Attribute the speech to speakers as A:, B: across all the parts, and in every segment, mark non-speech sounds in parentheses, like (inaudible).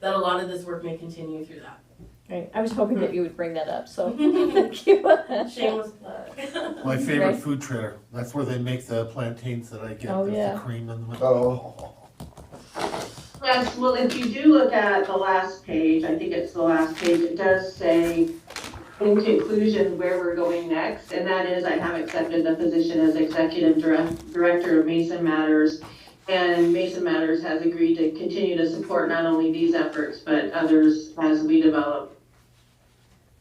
A: that a lot of this work may continue through that.
B: Right, I was hoping that you would bring that up, so thank you.
A: Shameless plug. (laughs)
C: My favorite
B: Right.
C: food trailer. That's where they make the plantains that I get.
B: Oh,
C: There's
B: yeah.
C: the cream in the middle.
D: Oh.
E: Yes, well, if you do look at the last page, I think it's the last page, it does say in conclusion where we're going next, and that is I have accepted the position as executive direct, director of Mason Matters. And Mason Matters has agreed to continue to support not only these efforts, but others as we develop.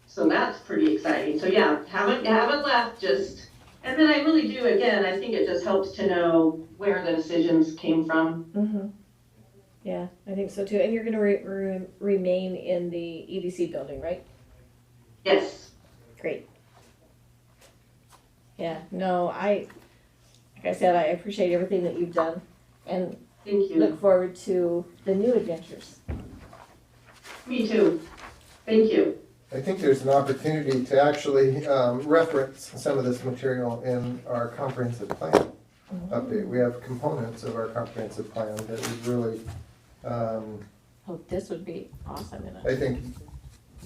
E: So that's pretty exciting. So yeah, haven't, haven't left, just, and then I really do, again, I think it just helps to know where the decisions came from.
B: Mhm. Yeah, I think so too. And you're gonna re- re- remain in the EDC building, right?
E: Yes.
B: Great. Yeah, no, I, like I said, I appreciate everything that you've done and
E: Thank you.
B: look forward to the new adventures.
E: Me too. Thank you.
D: I think there's an opportunity to actually um, reference some of this material in our comprehensive plan update. We have components of our comprehensive plan that would really, um,
B: Hope Oh, this would be awesome in
D: I
B: it.
D: think,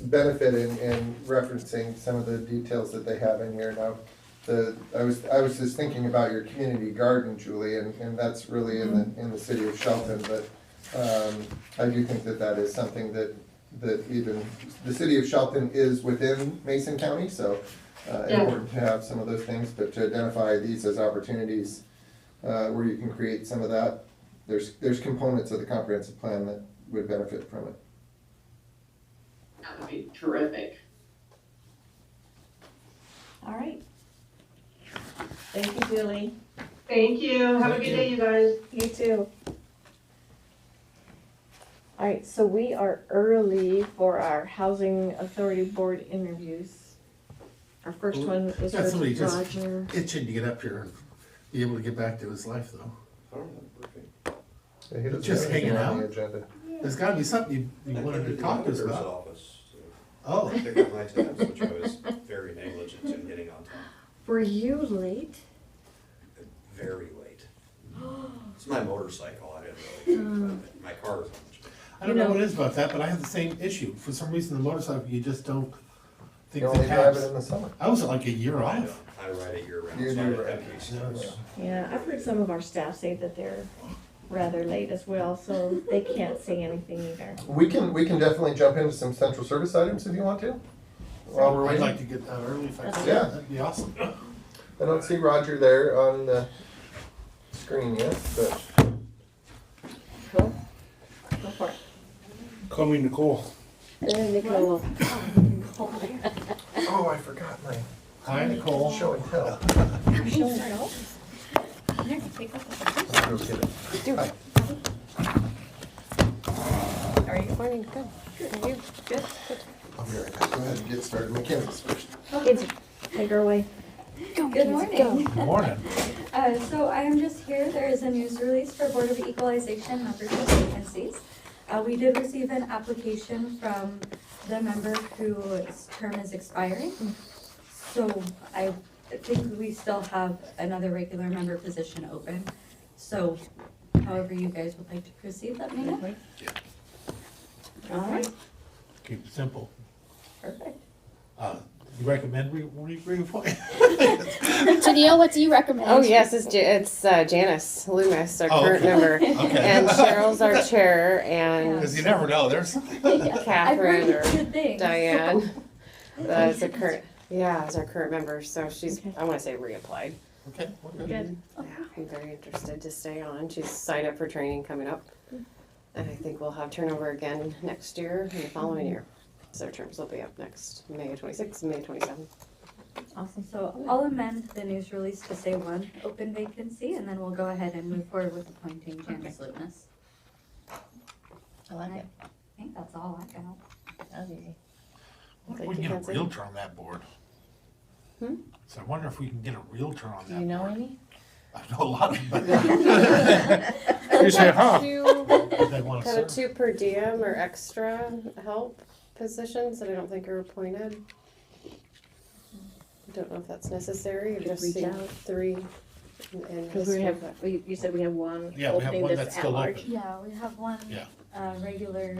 D: benefit in, in referencing some of the details that they have in here now. The, I was, I was just thinking about your community garden, Julie, and, and that's really in the, in the city of Shelton, but, um, I do think that that is something that, that even, the city of Shelton is within Mason County, so, uh,
E: Yeah.
D: important to have some of those things, but to identify these as opportunities, uh, where you can create some of that, there's, there's components of the comprehensive plan that would benefit from it.
E: That would be terrific.
B: All right. Thank you, Julie.
E: Thank you. Have a good day, you guys.
B: You too. All right, so we are early for our Housing Authority Board interviews. Our first one is
C: Yeah, somebody
B: with
C: just-
B: Roger.
C: Itching to get up here and be able to get back to his life, though.
D: Yeah, he doesn't
C: Just
D: have anything
C: hanging
D: on the agenda.
C: There's got to be something you, you wanted to talk to us about.
F: Office, so
C: Oh,
F: I picked up my tabs, which I was very negligent in getting on time,
B: Were you late?
F: very late. It's my motorcycle, I didn't really, think about it. my car was on.
C: I don't know what it is about that, but I have the same issue. For some reason, the motorcycle, you just don't think
D: You
C: the
D: only drive
C: cabs.
D: it in the summer.
C: I was like a year
F: I
C: off.
F: don't- I ride it year round,
D: You
F: so I
D: do
F: don't have
D: ride.
F: any
C: Yeah.
F: excuse.
B: Yeah, I've heard some of our staff say that they're rather late as well, so they can't say anything either.
D: We can, we can definitely jump into some central service items if you want to. While we're
C: I'd
D: waiting.
C: like to get that early if I could.
D: Yeah.
C: That'd be awesome.
D: I don't see Roger there on the screen yet, but
B: Cool? Go for it.
G: Call me Nicole.
B: Then Nicole.
D: oh, I forgot my
C: Hi, Nicole.
D: show and tell. I'll go get it.
B: Are you morning? Good. Are you good?
D: I'll be right back. Go ahead and get started. Mackenzie's first.
B: Kids, take her away.
H: Good morning.
C: Good morning.
H: Uh, So I am just here, there is a news release for Board of Equalization membership vacancies. Uh, We did receive an application from the member whose term is expiring. So I think we still have another regular member position open. So however you guys would like to proceed, let me know.
B: All right,
C: Keep it simple.
B: perfect.
C: Uh, you recommend we, we reappoint?
H: (laughs)
I: Danielle, what do you recommend?
J: Oh yes, it's Ja- it's uh, Janice Loomis, our
C: Oh,
J: current
C: okay.
J: member,
C: Okay.
J: and
C: (laughs)
J: Cheryl's our chair, and
C: Because you never
B: (laughs)
C: know. There's. (laughs)
H: I've
J: Catherine
H: heard
J: or
H: good things. (laughs)
J: Diane. That is a current, yeah, is our current member. So she's, I want to say reapplied.
C: Okay. we're good.
B: Good.
J: Yeah, I'm very interested to stay on. She's signed up for training coming up, and I think we'll have turnover again next year and the following year. So her terms will be up next May 26th, May 27th.
H: Awesome, so I'll amend the news release to say one open vacancy, and then we'll go ahead and move forward with appointing Janice Lutness.
B: I like it.
H: I think that's all I got.
B: That was easy.
C: Wonder if
J: Thank
C: We can
J: you,
C: get a
J: Nancy.
C: realtor on that board.
J: Hmm?
C: So I wonder if we can get a realtor on
B: Do you
C: that.
B: know any?
C: I know a lot of them.
B: (laughs)
C: (laughs)
G: You say, huh?
J: Two-
C: but They want to
J: Kind of
C: serve.
J: two per diem or extra help positions that I don't think are appointed. I Don't know if that's necessary, I've just
B: reach
J: seen
B: out.
J: three. in- in
B: Because
J: this
B: we have,
J: one,
B: we, you said we have one
C: Yeah, we have
B: opening
C: one
B: that's
C: that's
B: at
C: still
B: large.
C: open.
H: Yeah, we have one,
C: Yeah.
H: uh, regular